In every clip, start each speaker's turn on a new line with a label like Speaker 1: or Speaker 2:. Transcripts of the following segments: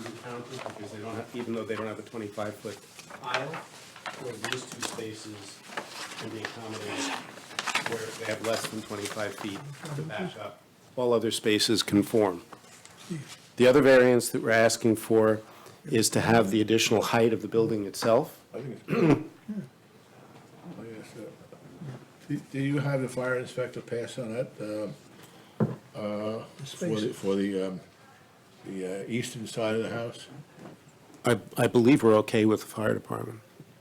Speaker 1: fountain, because they don't have, even though they don't have a twenty-five foot aisle, where these two spaces can be accommodated where they have less than twenty-five feet to back up. All other spaces conform. The other variance that we're asking for is to have the additional height of the building itself.
Speaker 2: I think it's. good. I think it's good. Do- Do you have the fire inspector pass on that, um, uh, for the,
Speaker 3: spaces.
Speaker 2: for the, um, the uh, eastern side of the house?
Speaker 1: I, I believe we're okay with the fire department.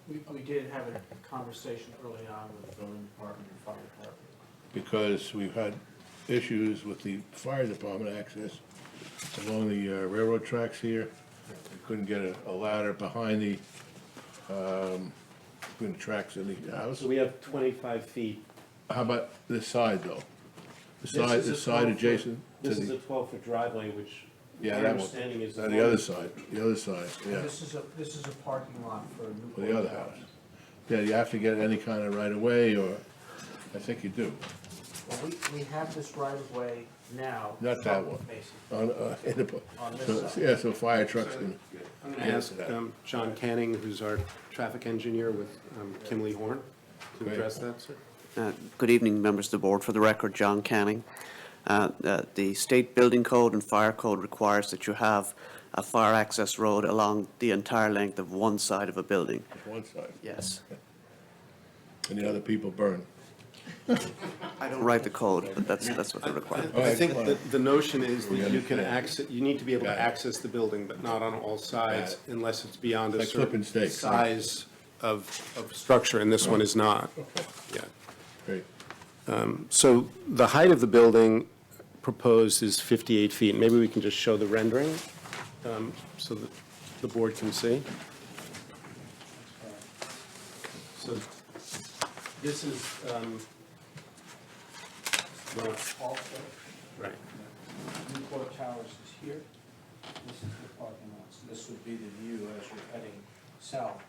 Speaker 4: We, we did have a conversation early on with the building department and fire department.
Speaker 2: Because we've had issues with the fire department access along the uh, railroad tracks here. We Couldn't get a- a ladder behind the, um, between the tracks in the house.
Speaker 1: So we have twenty-five feet.
Speaker 2: How about this side, though? The
Speaker 1: This
Speaker 2: side,
Speaker 1: is a
Speaker 2: the side
Speaker 1: 12 foot-
Speaker 2: adjacent to
Speaker 1: This is
Speaker 2: the-
Speaker 1: a twelve-foot driveway, which my
Speaker 2: Yeah, that one.
Speaker 1: understanding is.
Speaker 2: Uh, The other side, the other side, yeah,
Speaker 4: This is a, this is a parking lot for a new.
Speaker 2: or the other house. Yeah, you have to get any kind of right of way, or, I think you do,
Speaker 4: Well, we, we have this right of way now.
Speaker 2: Not that one.
Speaker 4: Basically.
Speaker 2: on, uh, in the, bu-
Speaker 4: On this
Speaker 2: so-
Speaker 4: side.
Speaker 2: yeah, so fire trucks can.
Speaker 1: I'm gonna ask
Speaker 2: uh,
Speaker 1: um, John Canning, who's our traffic engineer with um, Kimley Horn, to
Speaker 2: Great.
Speaker 1: address that, sir.
Speaker 5: Uh, Good evening, members of the board. For the record, John Canning. Uh, uh, The state building code and fire code requires that you have a fire access road along the entire length of one side of a building.
Speaker 2: One side,
Speaker 5: Yes.
Speaker 2: and the other people burn.
Speaker 5: I don't write the code, but that's, that's what they require.
Speaker 2: All
Speaker 1: I
Speaker 2: right,
Speaker 1: think
Speaker 2: come on.
Speaker 1: that the notion is
Speaker 2: We
Speaker 1: that you can
Speaker 2: understand.
Speaker 1: access, you need to be able
Speaker 2: Got
Speaker 1: to
Speaker 2: it.
Speaker 1: access the building, but not on all sides
Speaker 2: Got
Speaker 1: unless it's beyond a
Speaker 2: Like flipping
Speaker 1: certain
Speaker 2: steaks, right?
Speaker 1: size of, of structure, and this one is not. Yeah.
Speaker 2: Great,
Speaker 1: So the height of the building proposed is 58 feet. Maybe we can just show the rendering um, so that the board can see.
Speaker 4: Uh,
Speaker 1: So this is, um, well,
Speaker 4: Also,
Speaker 1: right,
Speaker 4: Newport Towers is here. This is the parking lot. So this would be the view as you're heading south.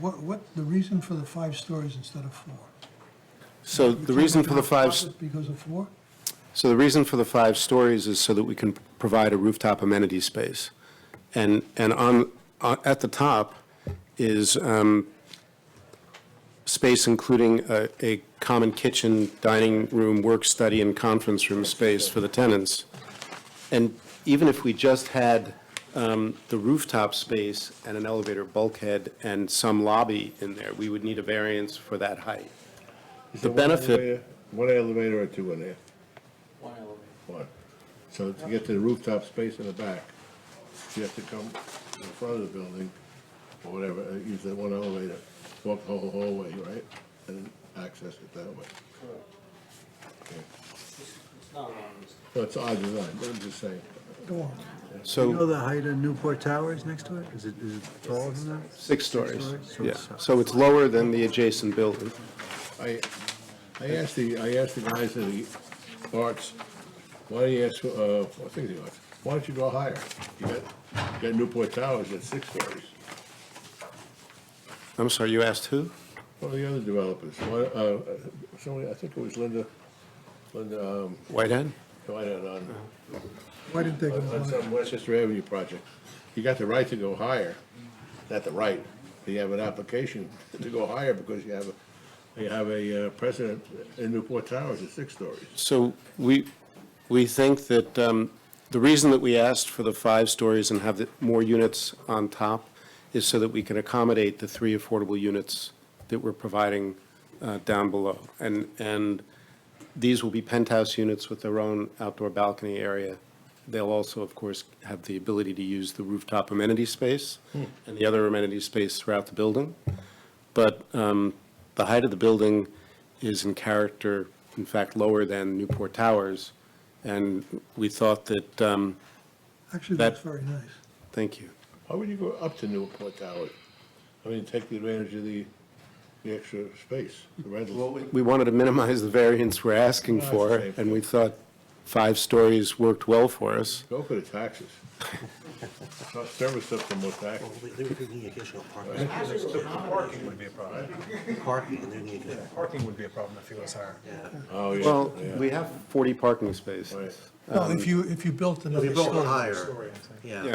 Speaker 3: What, what, the reason for the five stories instead of four?
Speaker 1: so the reason for the five,
Speaker 3: Because of four?
Speaker 1: so the reason for the five stories is so that we can provide a rooftop amenity space. And, and on, on- at the top is um, space including a, a common kitchen, dining room, work, study, and conference room space for the tenants. And even if we just had um, the rooftop space and an elevator bulkhead and some lobby in there, we would need a variance for that height.
Speaker 2: Is
Speaker 1: The
Speaker 2: there one
Speaker 1: benefit-
Speaker 2: elevator- One elevator or two in there,
Speaker 4: One elevator.
Speaker 2: one, so to get to the rooftop space in the back, you have to come in front of the building, or whatever, uh, use that one elevator, walk the whole hallway, right? And access it that way.
Speaker 4: Correct.
Speaker 2: Okay.
Speaker 4: This- It's not a long distance.
Speaker 2: Well, it's odd design, but I'm just saying.
Speaker 3: Go on.
Speaker 1: So.
Speaker 6: You know the height of Newport Tower is next to it? Is it, is it taller than that?
Speaker 1: Six stories,
Speaker 6: stories, so
Speaker 1: yeah.
Speaker 6: it's-
Speaker 1: So it's lower than the adjacent building.
Speaker 2: I, I asked the, I asked the guys at the arts, why do you ask, uh, I think the arts, why don't you go higher? You got, you got Newport Towers at six stories.
Speaker 1: I'm sorry, you asked who?
Speaker 2: One of the other developers, why, uh, somebody, I think it was Linda, Linda, um,
Speaker 1: Whitehead?
Speaker 2: why not on,
Speaker 3: Why didn't they go
Speaker 2: on
Speaker 3: on?
Speaker 2: some Westchester Avenue project. You got the right to go higher, not the right, you have an application to go higher because you have, a you have a uh, precedent in Newport Towers at six stories.
Speaker 1: So we, we think that um, the reason that we asked for the five stories and have the- more units on top is so that we can accommodate the three affordable units that we're providing uh, down below. And, and these will be penthouse units with their own outdoor balcony area. They'll also, of course, have the ability to use the rooftop amenity space and the other amenity space throughout the building. But um, the height of the building is in character, in fact, lower than Newport Towers. And we thought that, um,
Speaker 3: Actually,
Speaker 1: That-
Speaker 3: that's very nice.
Speaker 1: thank you.
Speaker 2: Why would you go up to Newport Towers? I mean, take the advantage of the, the extra space, the rental.
Speaker 1: We wanted to minimize the variance we're asking
Speaker 2: Well,
Speaker 1: for,
Speaker 2: that's safe.
Speaker 1: and we thought five stories worked well for us.
Speaker 2: Go for the taxes. Not Service up for more taxes.
Speaker 7: They they would need additional parking.
Speaker 8: Parking would be a problem.
Speaker 7: Parking, and they need additional.
Speaker 8: Parking would be a problem if it was higher.
Speaker 2: Oh, yeah.
Speaker 1: Well,
Speaker 2: yeah.
Speaker 1: we have 40 parking spaces.
Speaker 2: Right.
Speaker 3: No, if you, if you built
Speaker 7: um, If
Speaker 3: another
Speaker 7: you built
Speaker 3: story.
Speaker 7: higher, yeah.